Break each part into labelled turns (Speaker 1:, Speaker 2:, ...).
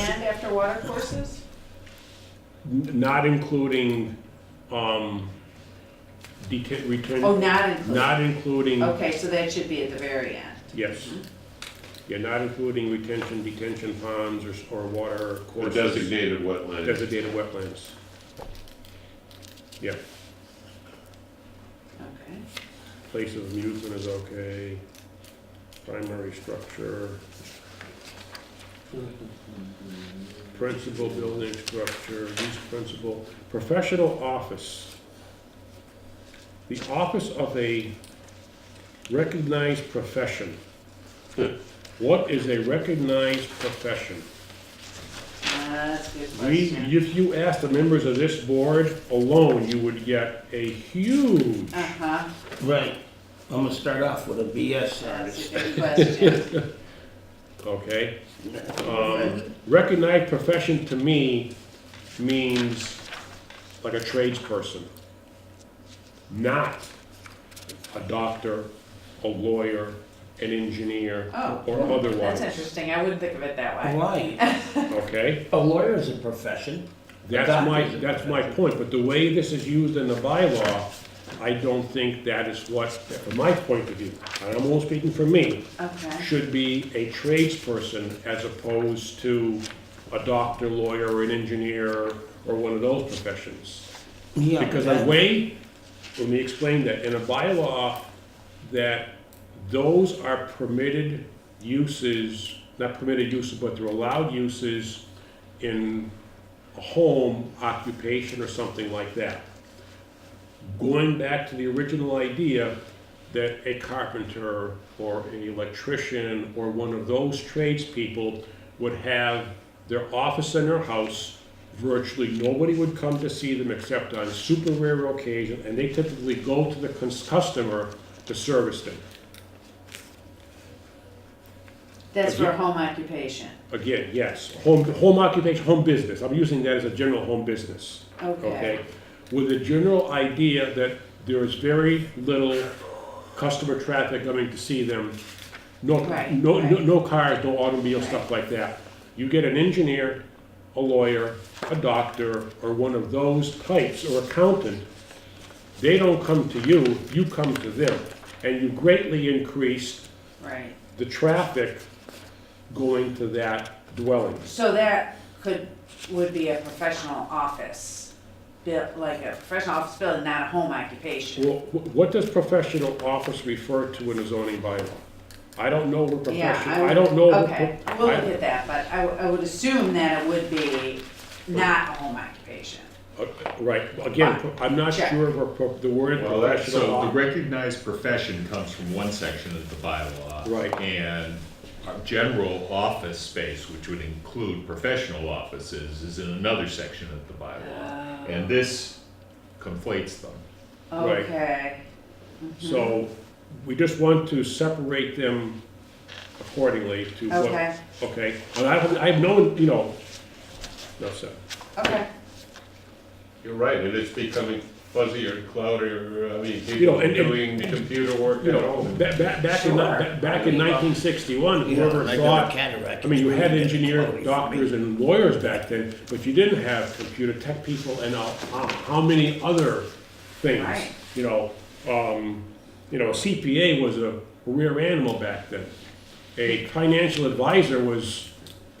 Speaker 1: And after water courses?
Speaker 2: N- Not including, um, deta-
Speaker 1: Oh,
Speaker 2: return,
Speaker 1: not included.
Speaker 2: not including,
Speaker 1: Okay, so that should be at the very end.
Speaker 2: yes. Yeah, not including retention, detention ponds or, s- or water
Speaker 3: Or
Speaker 2: courses.
Speaker 3: designated wetland.
Speaker 2: Designated wetlands. Yeah,
Speaker 1: Okay.
Speaker 2: place of amusement is okay, primary structure, principal building structure, use principal, professional office. The office of a recognized profession. What is a recognized profession?
Speaker 1: Uh, That's a good
Speaker 2: We,
Speaker 1: question.
Speaker 2: if you asked the members of this board alone, you would get a huge,
Speaker 1: Uh-huh,
Speaker 4: Right. I'm gonna start off with a BS
Speaker 1: that's a
Speaker 4: artist.
Speaker 1: good question.
Speaker 2: okay? Um, recognized profession to me means like a tradesperson, not a doctor, a lawyer, an engineer,
Speaker 1: Oh,
Speaker 2: or
Speaker 1: that's
Speaker 2: otherwise,
Speaker 1: interesting. I wouldn't think of it that way.
Speaker 4: Why?
Speaker 2: okay?
Speaker 4: A lawyer is a profession.
Speaker 2: That's my, that's my point, but the way this is used in the bylaw, I don't think that is what, from my point of view, and I'm only speaking for me,
Speaker 1: Okay,
Speaker 2: should be a tradesperson as opposed to a doctor, lawyer, an engineer, or one of those professions.
Speaker 4: Yeah,
Speaker 2: Because
Speaker 4: that-
Speaker 2: the way, let me explain that, in a bylaw, that those are permitted uses, not permitted uses, but they're allowed uses in a home occupation or something like that. Going back to the original idea that a carpenter or an electrician or one of those tradespeople would have their office in their house, virtually nobody would come to see them except on super rare occasion, and they typically go to the cus- customer to service them.
Speaker 1: that's
Speaker 2: If
Speaker 1: for
Speaker 2: you-
Speaker 1: home occupation.
Speaker 2: Again, yes, home, home occupation, home business, I'm using that as a general home business,
Speaker 1: Okay,
Speaker 2: okay? With the general idea that there is very little customer traffic coming to see them. No,
Speaker 1: Right,
Speaker 2: no, no,
Speaker 1: right.
Speaker 2: no cars, no automobile, stuff like that. You get an engineer, a lawyer, a doctor, or one of those types, or accountant, they don't come to you, you come to them. And you greatly increase
Speaker 1: right.
Speaker 2: the traffic going to that dwelling.
Speaker 1: So that could, would be a professional office, built, like a professional office building, not a home occupation.
Speaker 2: Well, wh- what does professional office refer to in a zoning bylaw? I don't know what
Speaker 1: Yeah,
Speaker 2: professional,
Speaker 1: would-
Speaker 2: I don't know. what-
Speaker 1: Okay, we'll
Speaker 2: I-
Speaker 1: look at that, but I, w- I would assume that it would be not a home occupation.
Speaker 2: Uh, Right, again, pro- I'm not
Speaker 1: Check.
Speaker 2: sure of a pro- the word
Speaker 3: Well, that's,
Speaker 2: professional
Speaker 3: so the
Speaker 2: law.
Speaker 3: recognized profession comes from one section of the bylaw.
Speaker 2: Right.
Speaker 3: Uh, And our general office space, which would include professional offices, is in another section of the bylaw. And this conflates them.
Speaker 2: Right.
Speaker 1: Okay,
Speaker 2: So we just want to separate them accordingly to what.
Speaker 1: Okay.
Speaker 2: Okay, and I have, I have known, you know, that's it.
Speaker 1: okay,
Speaker 3: You're right, it is becoming fuzzier and cloudier, uh, I mean,
Speaker 2: know, and- and-
Speaker 3: computer work
Speaker 2: You know, ba- ba- back in,
Speaker 1: Sure.
Speaker 2: ba- back in nineteen sixty-one,
Speaker 4: You know,
Speaker 2: whoever
Speaker 4: like a
Speaker 2: thought
Speaker 4: cataract,
Speaker 2: I mean, you
Speaker 4: it's
Speaker 2: had
Speaker 4: really
Speaker 2: engineers,
Speaker 4: getting cloudy for
Speaker 2: doctors,
Speaker 4: me.
Speaker 2: and lawyers back then, but you didn't have computer tech people and uh, how how many other things.
Speaker 1: Right.
Speaker 2: You know, um, you know, CPA was a rare animal back then. A financial advisor was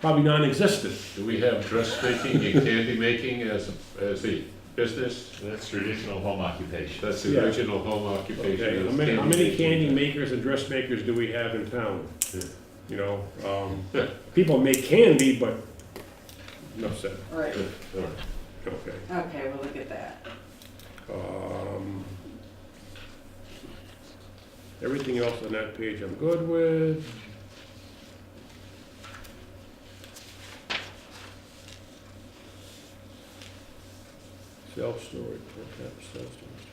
Speaker 2: probably non-existent.
Speaker 3: Do we have dressmaking and candy making as, as a business? That's traditional home occupation. That's
Speaker 2: Yeah.
Speaker 3: the original home occupation.
Speaker 2: Okay,
Speaker 3: is
Speaker 2: how many, how many candy
Speaker 3: making.
Speaker 2: makers and dressmakers do we have in town?
Speaker 3: Yeah.
Speaker 2: You know, um, people make candy, but, enough said,
Speaker 1: right,
Speaker 3: Yeah, all right.
Speaker 2: okay.
Speaker 1: okay, we'll look at that.
Speaker 2: Um, Everything else on that page I'm good with. Self-storage, perhaps, self-storage.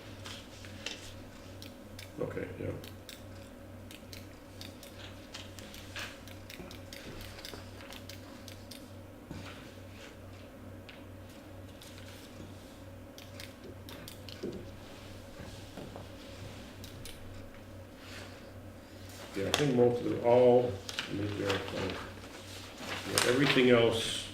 Speaker 2: Okay, yeah. Yeah, I think most of it, all, I mean, yeah, fine. Yeah, everything else